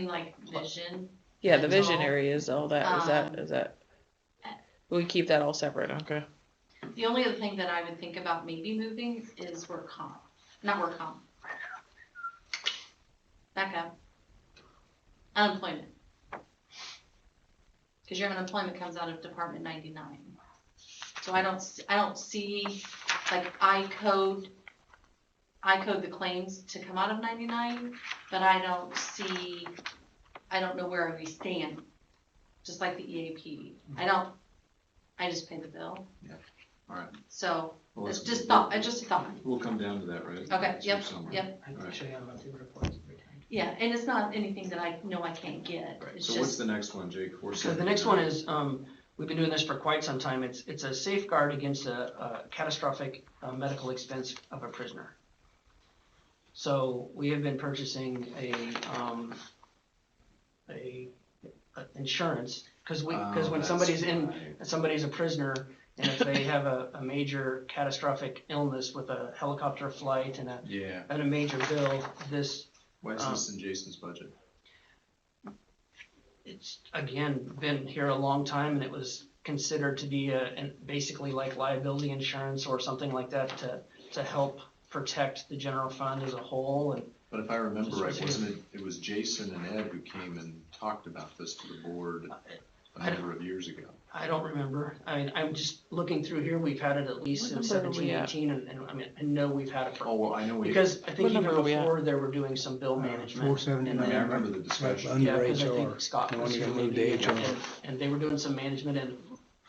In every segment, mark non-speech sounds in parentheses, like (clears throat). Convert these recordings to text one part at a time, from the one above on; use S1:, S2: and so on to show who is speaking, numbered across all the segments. S1: mean, like vision.
S2: Yeah, the
S1: That's all.
S2: visionary is all that. Is that
S1: Um,
S2: is that? We keep that all separate. Okay.
S1: The only other thing that I would think about maybe moving is work comp, not work comp. Back up. Unemployment. Cause your unemployment comes out of Department ninety-nine. So I don't, s- I don't see, like, I code, I code the claims to come out of ninety-nine, but I don't see, I don't know where we stand. Just like the EAP. I don't, I just pay the bill.
S3: Alright.
S1: So,
S3: well,
S1: it's
S3: let's-
S1: just thought, it's just a thought.
S3: We'll come down to that, right?
S1: Okay,
S3: It's
S1: yep,
S3: somewhere.
S1: yep.
S4: I
S3: Alright.
S4: actually have monthly reports every time.
S1: Yeah, and it's not anything that I know I can't get.
S3: Right,
S1: It's
S3: so what's
S1: just,
S3: the next one, Jake? Four
S4: So the next one is, um, we've been doing this for quite some time. It's, it's a safeguard against a, a catastrophic uh, medical expense of a prisoner. So we have been purchasing a, um, a, a insurance, cause we, cause
S3: Oh,
S4: when
S3: that's
S4: somebody's in,
S3: right.
S4: somebody's a prisoner, and if they have a, a major catastrophic illness with a helicopter flight and a,
S3: Yeah,
S4: and a major bill, this
S3: why's
S4: Um,
S3: this in Jason's budget?
S4: it's again been here a long time and it was considered to be a, an basically like liability insurance or something like that to, to help protect the general fund as a whole and
S3: But if I remember
S4: Just
S3: right,
S4: was here.
S3: wasn't it, it was Jason and Ed who came and talked about this to the board
S1: Uh,
S4: I
S3: a
S4: don't-
S3: number of years ago?
S4: I don't remember. I mean, I'm just looking through here. We've had it at least
S2: What
S4: since
S2: number are we
S4: seventeen
S2: at?
S4: eighteen and, and I mean, I know we've had it
S3: Oh,
S4: for,
S3: well, I know we, I
S4: because I think
S2: What
S4: even
S2: number are we at?
S4: before there were doing some bill management.
S5: Four seventy
S4: and
S3: mean, I
S4: then-
S3: remember the discussion.
S4: Yeah,
S5: Under
S4: because I
S5: HR,
S4: think Scott
S5: the
S4: was
S5: one you
S4: here
S5: got moved to
S4: leading it,
S5: HR.
S4: and, and they were doing some management and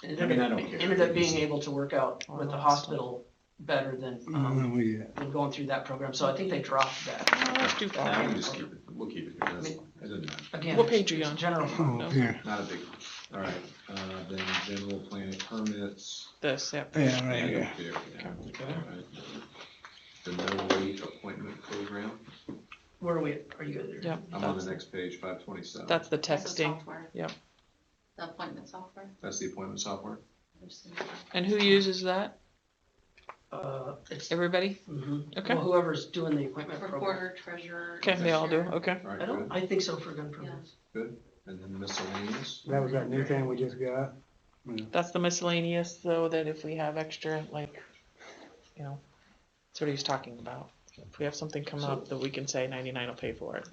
S4: it
S3: I mean, I
S4: ended,
S3: don't care.
S4: ended up being able to work out
S2: Oh,
S4: with the
S2: that's-
S4: hospital better than, um,
S5: When we, uh,
S4: than going through that program, so I think they dropped that.
S2: Let's do
S3: I
S2: five.
S3: can just keep it, we'll keep it here, that's fine, it doesn't matter,
S4: Again,
S2: What page are you
S4: it's
S2: on?
S4: General,
S5: (laughs) oh,
S2: No.
S5: here,
S3: not a big one. All right, uh, then general plan permits.
S2: This. Yep.
S5: yeah, right here.
S3: Yeah, yeah,
S4: Okay.
S3: all right. The no wait appointment program,
S4: where are we, at? are you there?
S2: Yep.
S3: I'm on
S2: that's-
S3: the next page, five twenty-seven.
S2: That's the
S1: that's the
S2: texting.
S1: software.
S2: Yep.
S1: The appointment software.
S3: That's the appointment software?
S1: I'm just gonna-
S2: And who uses that?
S4: Uh, it's,
S2: Everybody?
S4: mhm.
S2: Okay.
S4: Well, whoever's doing the appointment program.
S1: Recorder, treasurer.
S2: Okay, they all do.
S1: cashier.
S2: Okay.
S3: All right,
S4: I don't,
S3: good,
S4: I think so for gun programs.
S3: and then miscellaneous,
S5: That was that new thing we just got.
S2: That's the miscellaneous, though, that if we have extra, like, you know, that's what he's talking about. If we have something come up that we can say ninety-nine will pay for it.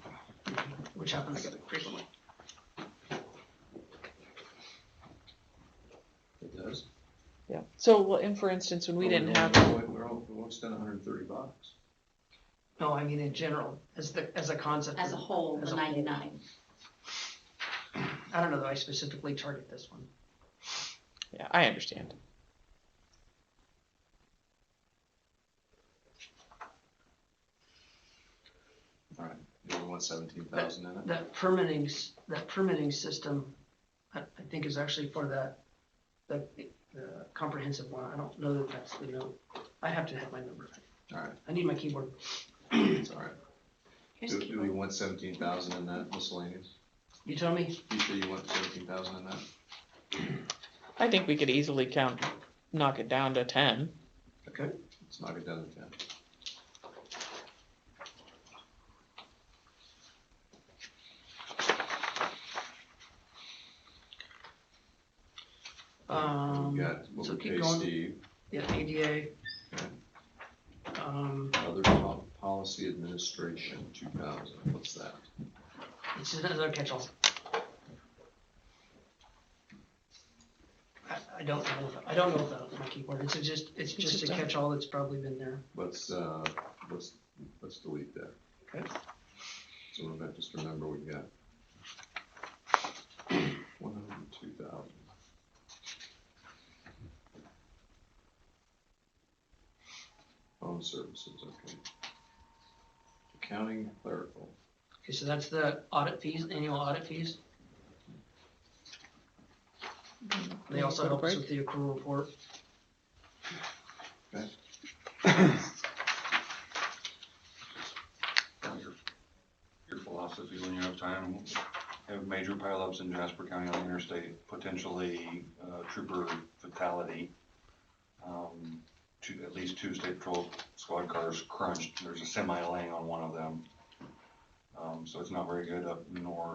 S4: which happens frequently.
S3: it does.
S2: Yeah. So, well, and for instance, when we
S3: Oh,
S2: didn't
S3: don't-
S2: have,
S3: We're, we're, all- we won't spend hundred and thirty bucks.
S4: No, I mean in general, as the, as a concept.
S1: As a whole,
S4: As
S1: the
S4: a whole.
S1: ninety-nine.
S4: I don't know that I specifically target this one.
S2: yeah, I understand.
S3: All right, you only want seventeen thousand in it?
S4: That permitting, s- that permitting system, I, I think is actually for that, the, the comprehensive one, I don't know that that's the note. I have to have my number,
S3: All right,
S4: I need my keyboard.
S3: it's all right. Do, do we want seventeen thousand in that miscellaneous?
S4: You tell me,
S3: You sure you want seventeen thousand in that?
S2: I think we could easily count, knock it down to ten.
S4: okay,
S3: Let's knock it down to ten.
S4: um,
S3: We've got what
S4: so
S3: we
S4: keep
S3: pay
S4: going.
S3: Steve,
S4: Um, yeah, ADA. Um,
S3: other po- policy administration, two thousand, what's that?
S4: It's just another catch-all. I, I don't know, if- I don't know if that's my keyboard, it's just, it's just a
S2: just a-
S4: catch-all that's probably been there.
S3: Let's, uh, let's, let's delete that.
S4: Okay.
S3: So we're gonna just remember we got (clears throat) one hundred and two thousand. Phone services, okay. Accounting clerical,
S4: Okay, so that's the audit fees, annual audit fees. They also help us with the accrual report.
S6: your, your philosophy when you have time, have major pileups in Jasper County on the interstate, potentially uh, trooper fatality. Um, Two, at least two state patrol squad cars crunched, there's a semi laying on one of them.
S3: Um, so it's not very good up north.